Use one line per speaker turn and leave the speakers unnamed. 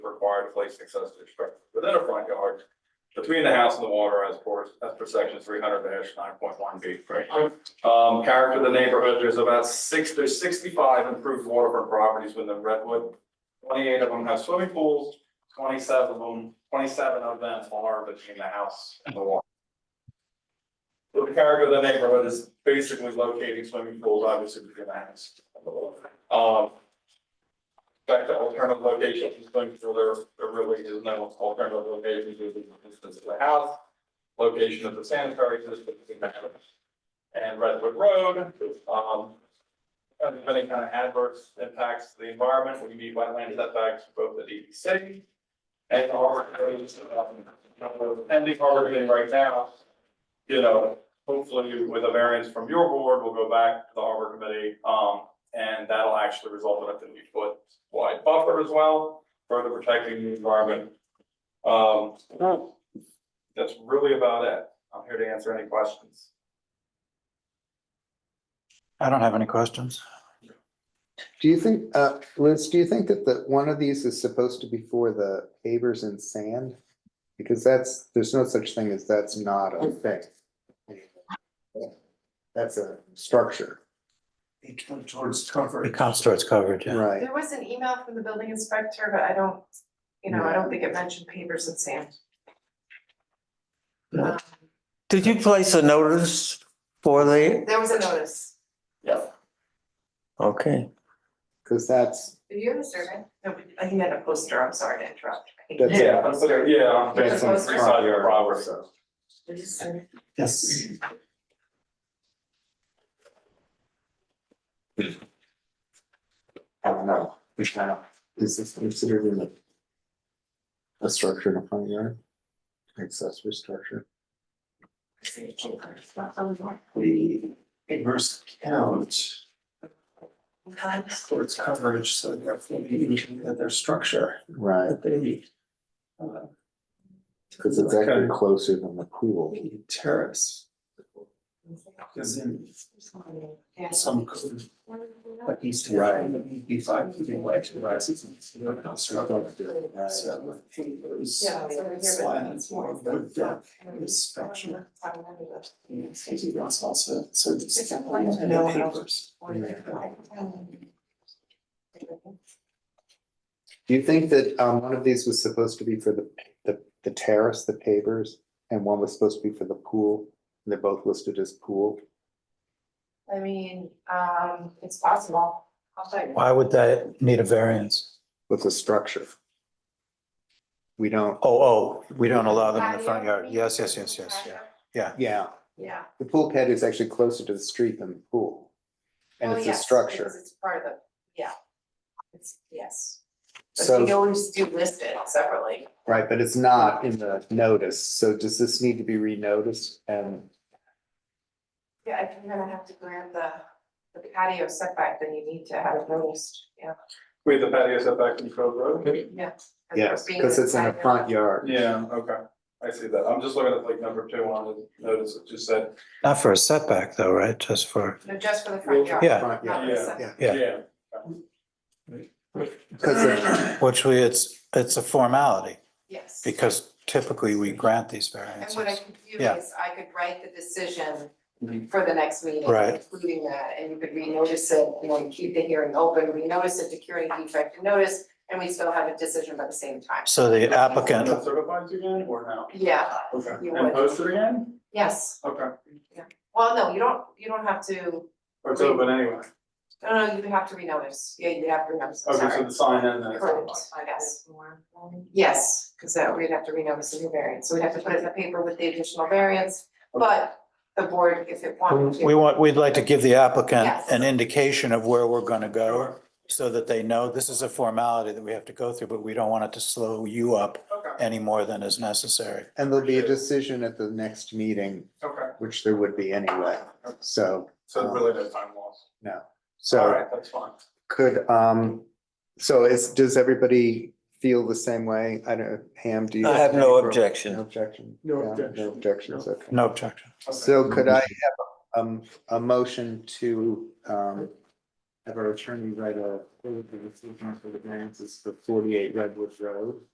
required to place an accessory structure within a front yard between the house and the water as per, as per section three hundred nine point one B. Um, character of the neighborhood, there's about six, there's sixty-five improved waterfront properties within Redwood. Twenty-eight of them have swimming pools, twenty-seven of them, twenty-seven of them are between the house and the water. So The character of the neighborhood is basically locating swimming pools, obviously, between the house. and the water. Um, back to alternative locations, going through there, there really is no alternative locations, due to the distance of the house. Location of the sanitary system. And Redwood Road, um. And if any kind of adverse impacts to the environment, we meet wetland setbacks for both the DEC. And our, um, pending harbor Committee right now. You know, hopefully with a variance from your board, we'll go back to the harbor committee, um, and that'll actually result in a fifty foot wide buffer as well, further protecting the environment. Um, that's really about it. I'm here to answer any questions.
I don't have any questions.
Do you think, uh, Liz, do you think that the, one of these is supposed to be for the pavers and sand? Because that's, there's no such thing as that's not a thing. That's a structure,
It comes towards cover.
It comes towards coverage, yeah.
right?
There was an email from the building inspector, but I don't, you know, I don't think it mentioned pavers and sand.
No.
Um,
Did you place a notice for the,
There was a notice.
Yeah.
okay,
Cause that's,
Did you have a survey? No, but he had a poster, I'm sorry to interrupt. I think-
That's-
Yeah, I'm sorry, yeah.
that's on
It's
Three side
supposed
front
yard
yard,
property.
so.
Yes.
I don't know, which kind of, is this considered in the? A structure in a front yard? Accessory structure,
The inverse count
Okay.
towards coverage, so therefore meaning that their structure
right,
that they. uh,
cause it's
like a
actually closer than the pool.
Terrace, because in some code, like East Hampton, be five feet away to rises. So those
Yeah, it's over here, but
slats
it's more.
or wood deck is structure. And safety grounds also, so.
It's a plan to know how-
Do you think that um one of these was supposed to be for the the the terrace, the pavers, and one was supposed to be for the pool? They're both listed as pool.
I mean, um, it's possible. I'll tell you.
why would that need a variance?
What's a structure? We don't,
Oh, oh, we don't allow them in the front yard, yes, yes, yes, yes, yeah.
yeah,
Yeah.
the pool pad is actually closer to the street than the pool. And
Well,
it's a
Oh, yes, because
structure,
It's part of the, yeah. It's, yes, but we
so,
always do list it separately.
right, but it's not in the notice, so does this need to be renoticed and?
Yeah, if you're gonna have to grant the, the patio setback, then you need to have it noticed, yeah.
Wait, the patio setback from Cove Road?
Yeah.
Yes, because it's in a front yard.
Yeah, okay, I see that. I'm just looking at like number two on the notice, it just said,
Not for a setback though, right, just for,
No, just for the front yard.
Yeah.
Front yard,
not the
Yeah.
setback.
Yeah.
Yeah.
yeah,
cause it-
which we, it's, it's a formality,
Yes.
because typically we grant these
And what I
variances.
could do
Yeah. Mm-hmm.
is I could write the decision
Mhm.
for the next meeting.
Right.
Including that, and you could renotice it, you know, and keep the hearing open, renotice it to cure any defect in notice, and we still have a decision by the same time.
So the
Is
applicant,
that certified again or now?
Yeah,
Okay,
You
and
would.
posted again?
yes.
Okay,
Well, no, you don't, you don't have to,
or it's open anyway.
no, no, you have to renotice. Yeah, you have to renotice, I'm
Okay,
sorry.
so the sign and then. it's
Correct,
certified.
I guess. Yes, because that we'd have to renotice the new variance, so we'd have to put it in the paper with the additional variance, but the board, if it wanted to.
we want, we'd like to give the applicant
Yes.
an indication of where we're gonna go, so that they know this is a formality that we have to go through, but we don't want it to slow you up
Okay,
any more than is necessary.
And there'll be a decision at the next meeting,
okay,
which there would be anyway, so,
so really no time loss.
no.
All
So
right, that's fine.
could, um, so is, does everybody feel the same way? I don't, Ham, do you?
I have no
any- No
objection.
objection?
No
Yeah,
objection.
No objections, okay.
No objection.
Okay.
So could I have, um, a motion to, um, have our attorney write a, for the decision for the variances for forty-eight Redwood Road?